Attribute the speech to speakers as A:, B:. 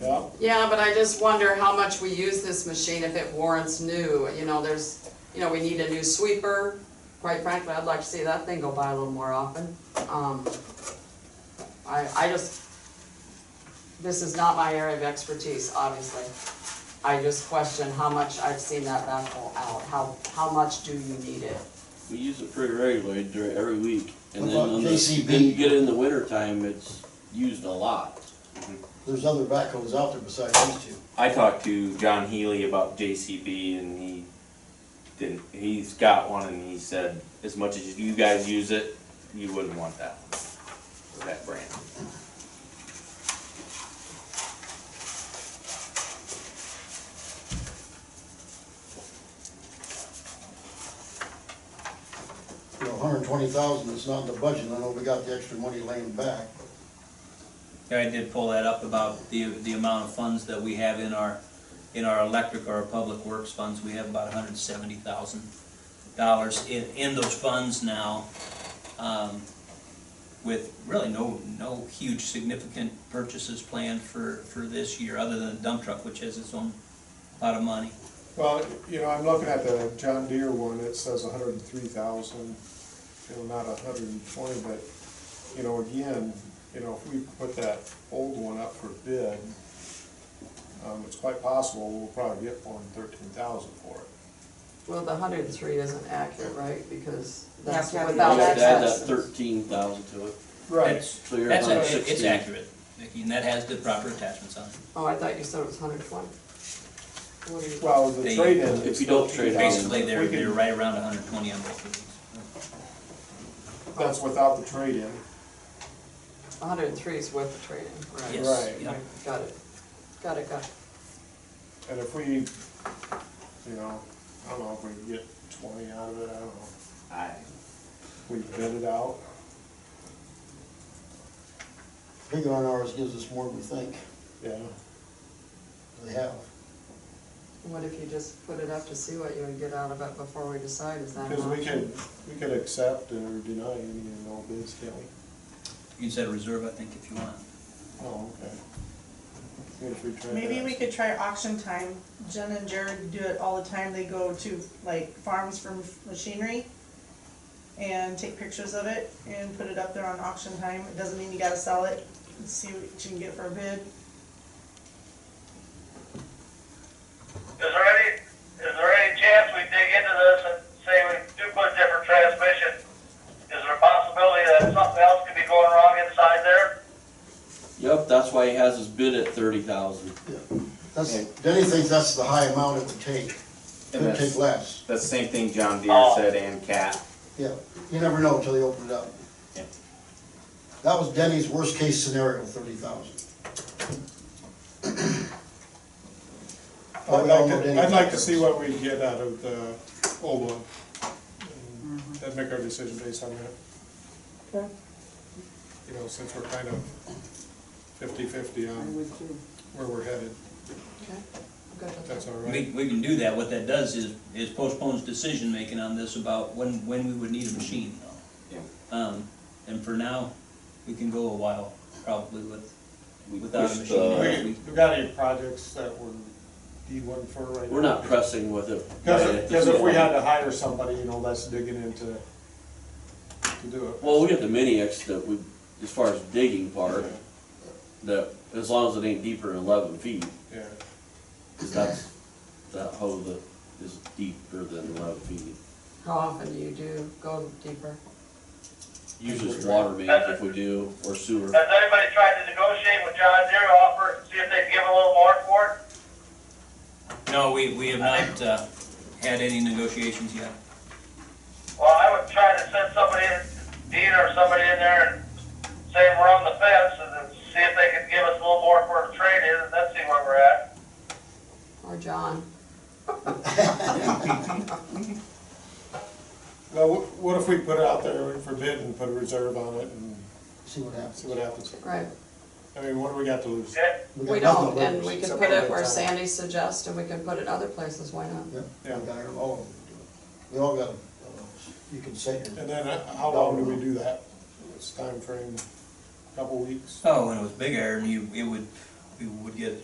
A: Yeah,
B: Yeah, but I just wonder how much we use this machine if it warrants new, you know, there's, you know, we need a new sweeper. Quite frankly, I'd like to see that thing go by a little more often. Um, I, I just, this is not my area of expertise, obviously. I just question how much I've seen that backhoe out, how, how much do you need it?
C: We use it pretty regularly during, every week. And
D: What
C: then
D: about
C: on the-
D: JCB?
C: Then you get in the winter time, it's used a lot.
D: There's other backhoes out there besides these two.
E: I talked to John Healy about JCB and he didn't, he's got one and he said, as much as you guys use it, you wouldn't want that one, or that brand.
D: You know, hundred and twenty thousand, it's not in the budget, I know we got the extra money laying back.
F: I did pull that up about the, the amount of funds that we have in our, in our electric or our public works funds, we have about hundred and seventy thousand dollars in, in those funds now, um, with really no, no huge significant purchases planned for, for this year, other than a dump truck, which has its own pot of money.
A: well, you know, I'm looking at the John Deere one, it says hundred and three thousand, you know, not hundred and twenty, but, you know, again, you know, if we put that old one up for bid, um, it's quite possible we'll probably get more than thirteen thousand for it.
B: Well, the hundred and three isn't accurate, right? Because
G: You have
B: that's
G: to have
B: without
C: You have to add that
B: access.
C: thirteen thousand to it.
F: That's,
C: So you're
F: that's,
C: about
F: accurate. it's
C: 16.
F: accurate, Vicki, and that has the proper attachments on it.
B: Oh, I thought you said it was hundred and twenty. What do you?
A: Well, the
F: They-
A: trade-in.
C: If
A: is
C: you don't trade out.
F: Basically, they're,
A: We can-
F: they're right around hundred and twenty on both of these.
A: That's without the trade-in.
B: hundred and three is worth the trade-in, right?
F: Yes,
A: Right.
F: yeah.
B: Got it, got it, got it.
A: And if we, you know, I don't know if we can get twenty out of it, I don't know.
C: I-
A: We bid it out.
D: Bigger on ours gives us more than we think
A: Yeah.
D: they have.
B: What if you just put it up to see what you would get out of it before we decide, is that an
A: Because we
G: Uh-huh.
B: option?
A: could, we could accept or deny any and all bids, can't we?
F: You can set a reserve, I think, if you want.
A: Oh, okay. Maybe if we try
G: Maybe
A: that.
G: we could try auction time. Jen and Jared do it all the time. They go to like farms for machinery and take pictures of it and put it up there on auction time. It doesn't mean you gotta sell it. See what you can get for a bid.
H: Is there any, is there any chance we dig into this and say we do put a different transmission? Is there a possibility that something else could be going wrong inside there?
C: Yep, that's why he has his bid at thirty thousand.
D: That's,
E: Okay.
D: Denny thinks that's the high amount it would take, could
E: And that's,
D: take less,
E: that's the same thing John Deere
H: Oh.
E: said and Cat.
D: yeah. You never know until you open it up.
E: Yeah.
D: That was Denny's worst case scenario, thirty thousand.
A: I'd like to, I'd like to see what we get out of the old one. and Then make our decision based on that.
G: Mm-hmm. Okay.
A: You know, since we're kind of fifty-fifty on
B: would too.
A: where we're headed,
B: Okay, I'm good with
A: if
B: that.
A: that's all
F: We,
A: right.
F: we can do that, what that does is, is postpones decision-making on this about when, when we would need a machine, though. Um, and for now, we can go a while, probably with,
C: We
F: without a
C: pushed,
F: machine.
C: uh,
F: We-
A: We, we got any projects that we're D one for right now?
C: We're not pressing with it. right at
A: Because,
C: this
A: because if we
C: moment.
A: had to hire somebody, you know, that's digging into, to do it.
C: Well, we got the mini X that we, as far as digging part, that, as long as it ain't deeper than eleven feet,
A: Yeah,
C: cause that's, that hole that is deeper than eleven feet.
B: How often do you do go deeper?
C: Usually it's water main if we do, or sewer.
H: Has anybody tried to negotiate with John Deere to offer, see if they'd give a little more for it?
F: No, we, we have not, uh, had any negotiations yet.
H: Well, I would try to send somebody in, Dean or somebody in there and say we're on the fence and then see if they could give us a little more for a trade-in and then see where we're at.
B: Or John?
A: now, wh- what if we put it out there for bid and put a reserve on it and
D: See what happens.
A: see what happens?
B: Right,
A: I mean, what do we got to lose?
D: got
B: we
D: nothing
B: don't,
D: to
B: and
D: lose.
B: we could
A: Except
B: put
A: for
B: it
A: the
B: where
A: time.
B: Sandy suggests, and we can put it other places, why not?
D: Yeah,
A: Yeah.
D: we got 'em all. We all got 'em. You can say your
A: And then uh, how long do we do that? It's time frame, couple weeks?
F: Oh, when it was big iron, you, it would, we would get